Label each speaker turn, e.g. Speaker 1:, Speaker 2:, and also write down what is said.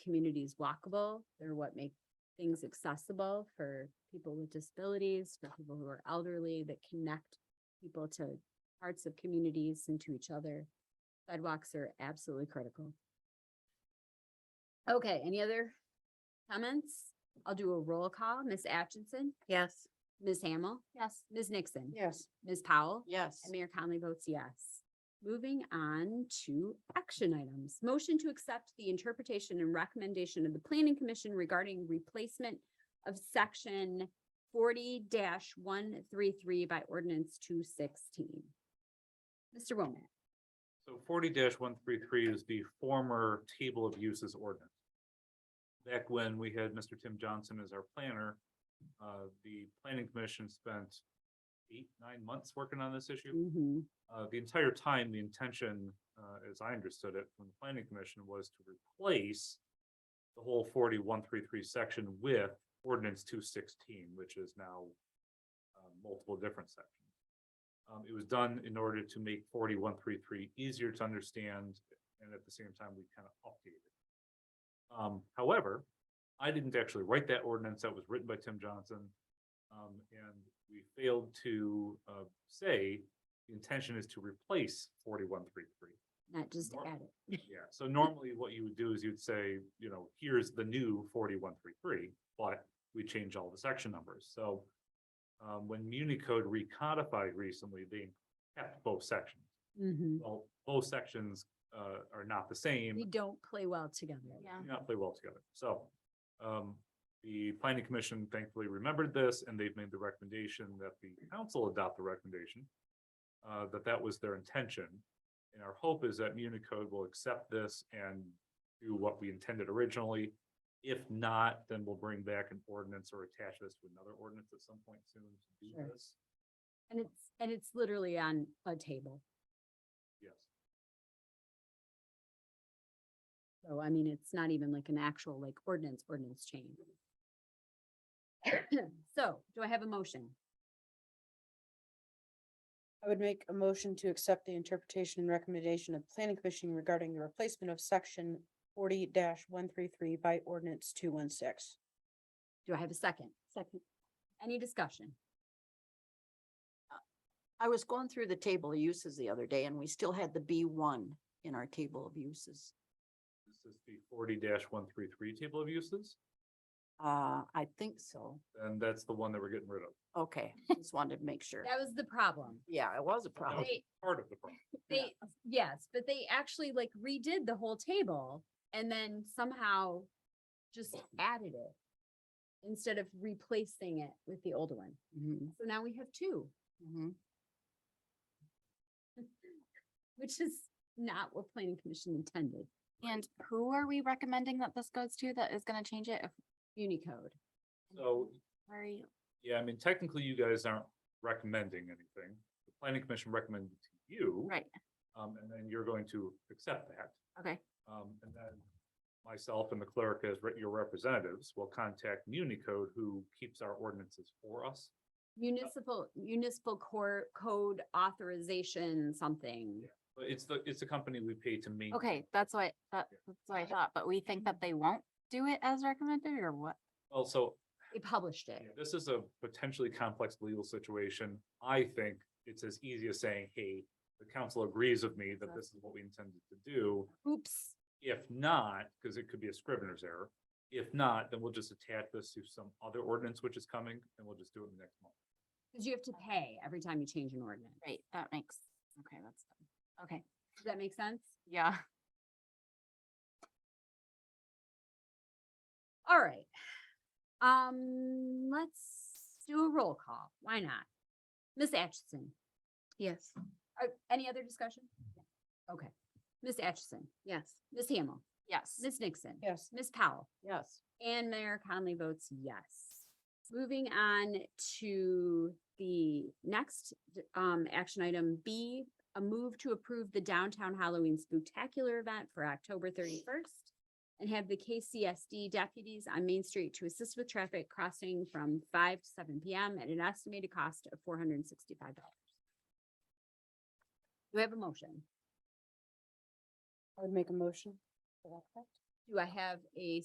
Speaker 1: communities walkable. They're what make things accessible for people with disabilities, for people who are elderly, that connect people to parts of communities and to each other. Sidewalks are absolutely critical. Okay, any other comments? I'll do a roll call. Ms. Atchison,
Speaker 2: Yes.
Speaker 1: Ms. Hamel. Yes. Ms. Nixon.
Speaker 2: Yes.
Speaker 1: Ms. Powell.
Speaker 2: Yes.
Speaker 1: And Mayor Conley votes yes. Moving on to action items. Motion to accept the interpretation and recommendation of the Planning Commission regarding replacement of section forty one three three by ordinance two sixteen. Mr. Womack,
Speaker 3: So forty one three three is the former table of uses ordinance. Back when we had Mr. Tim Johnson as our planner, uh, the planning commission spent eight, nine months working on this issue.
Speaker 1: Mhm.
Speaker 3: Uh, the entire time, the intention, uh, as I understood it from the planning commission was to replace the whole forty one three three section with ordinance two sixteen, which is now uh, multiple different sections. Um, it was done in order to make forty-one three three easier to understand, and at the same time, we kind of updated. it. Um, however, I didn't actually write that ordinance that was written by Tim Johnson. Um, and we failed to, uh, say the intention is to replace forty-one three three.
Speaker 1: not just
Speaker 3: Nor-
Speaker 1: add it.
Speaker 3: Yeah, so normally what you would do is you'd say, you know, here's the new forty-one three three, but we change all the section numbers, so. Um, when Municode recodified recently, they kept both sections.
Speaker 1: Mhm.
Speaker 3: Well, both sections, uh, are not the same.
Speaker 1: They don't play well together.
Speaker 2: Yeah.
Speaker 3: do Not play well together, so. Um, the planning commission thankfully remembered this and they've made the recommendation that the council adopt the recommendation. Uh, that that was their intention. And our hope is that Municode will accept this and do what we intended originally. If not, then we'll bring back an ordinance or attach this to another ordinance at some point soon to
Speaker 1: Sure.
Speaker 3: do this.
Speaker 1: And it's, and it's literally on a table.
Speaker 3: Yes,
Speaker 1: So I mean, it's not even like an actual like ordinance, ordinance change. So do I have a motion?
Speaker 2: I would make a motion to accept the interpretation and recommendation of the planning commission regarding the replacement of section forty one three three by ordinance two one six.
Speaker 1: Do I have a second? Second. Any discussion?
Speaker 4: I was going through the table of uses the other day and we still had the B one in our table of uses.
Speaker 3: this is the forty one three three table of uses,
Speaker 4: Uh, I think so.
Speaker 3: and that's the one that we're getting rid of.
Speaker 4: Okay, just wanted to make sure.
Speaker 1: That was the problem.
Speaker 4: Yeah, it was a
Speaker 3: That
Speaker 4: problem.
Speaker 3: was
Speaker 1: They-
Speaker 3: part of the problem.
Speaker 1: They, yes, but they actually like redid the whole table and then somehow just added it instead of replacing it with the old one.
Speaker 4: Mhm,
Speaker 1: So now we have two,
Speaker 4: mhm.
Speaker 1: which is not what planning commission intended.
Speaker 5: And who are we recommending that this goes to that is gonna change it if?
Speaker 1: Unicode.
Speaker 3: So
Speaker 5: Where are you?
Speaker 3: Yeah, I mean, technically you guys aren't recommending anything. The planning commission recommended to you.
Speaker 5: Right,
Speaker 3: Um, and then you're going to accept that.
Speaker 5: okay,
Speaker 3: Um, and then myself and the clerk as re- your representatives will contact Municode who keeps our ordinances for us.
Speaker 1: Municipal, municipal core code authorization, something.
Speaker 3: But it's the, it's the company we pay to maintain.
Speaker 5: okay, that's why, that, that's what I thought, but we think that they won't do it as recommended or what?
Speaker 3: Also,
Speaker 1: They published it.
Speaker 3: Yeah, This is a potentially complex legal situation. I think it's as easy as saying, hey, the council agrees with me that this is what we intended to do.
Speaker 1: Oops.
Speaker 3: If not, because it could be a scrivener's error, if not, then we'll just attach this to some other ordinance which is coming and we'll just do it in the next month.
Speaker 1: Cause you have to pay every time you change an ordinance.
Speaker 5: Right, that makes, okay, that's, fine. okay,
Speaker 1: Does that make sense?
Speaker 5: yeah.
Speaker 1: All right. Um, let's do a roll call. Why not? Miss Atchison,
Speaker 2: Yes.
Speaker 1: uh, any other discussion? Okay. Miss Atchison,
Speaker 2: Yes.
Speaker 1: Miss Hamel,
Speaker 5: Yes.
Speaker 1: Miss Nixon,
Speaker 2: Yes.
Speaker 1: Miss Powell,
Speaker 4: Yes,
Speaker 1: and Mayor Conley votes yes. Moving on to the next um action item B, a move to approve the downtown Halloween spooktacular event for October thirty-first and have the KCSD deputies on Main Street to assist with traffic crossing from five to seven PM at an estimated cost of four hundred and sixty-five dollars. Do we have a motion?
Speaker 2: I would make a motion. Is that correct?
Speaker 1: Do I have a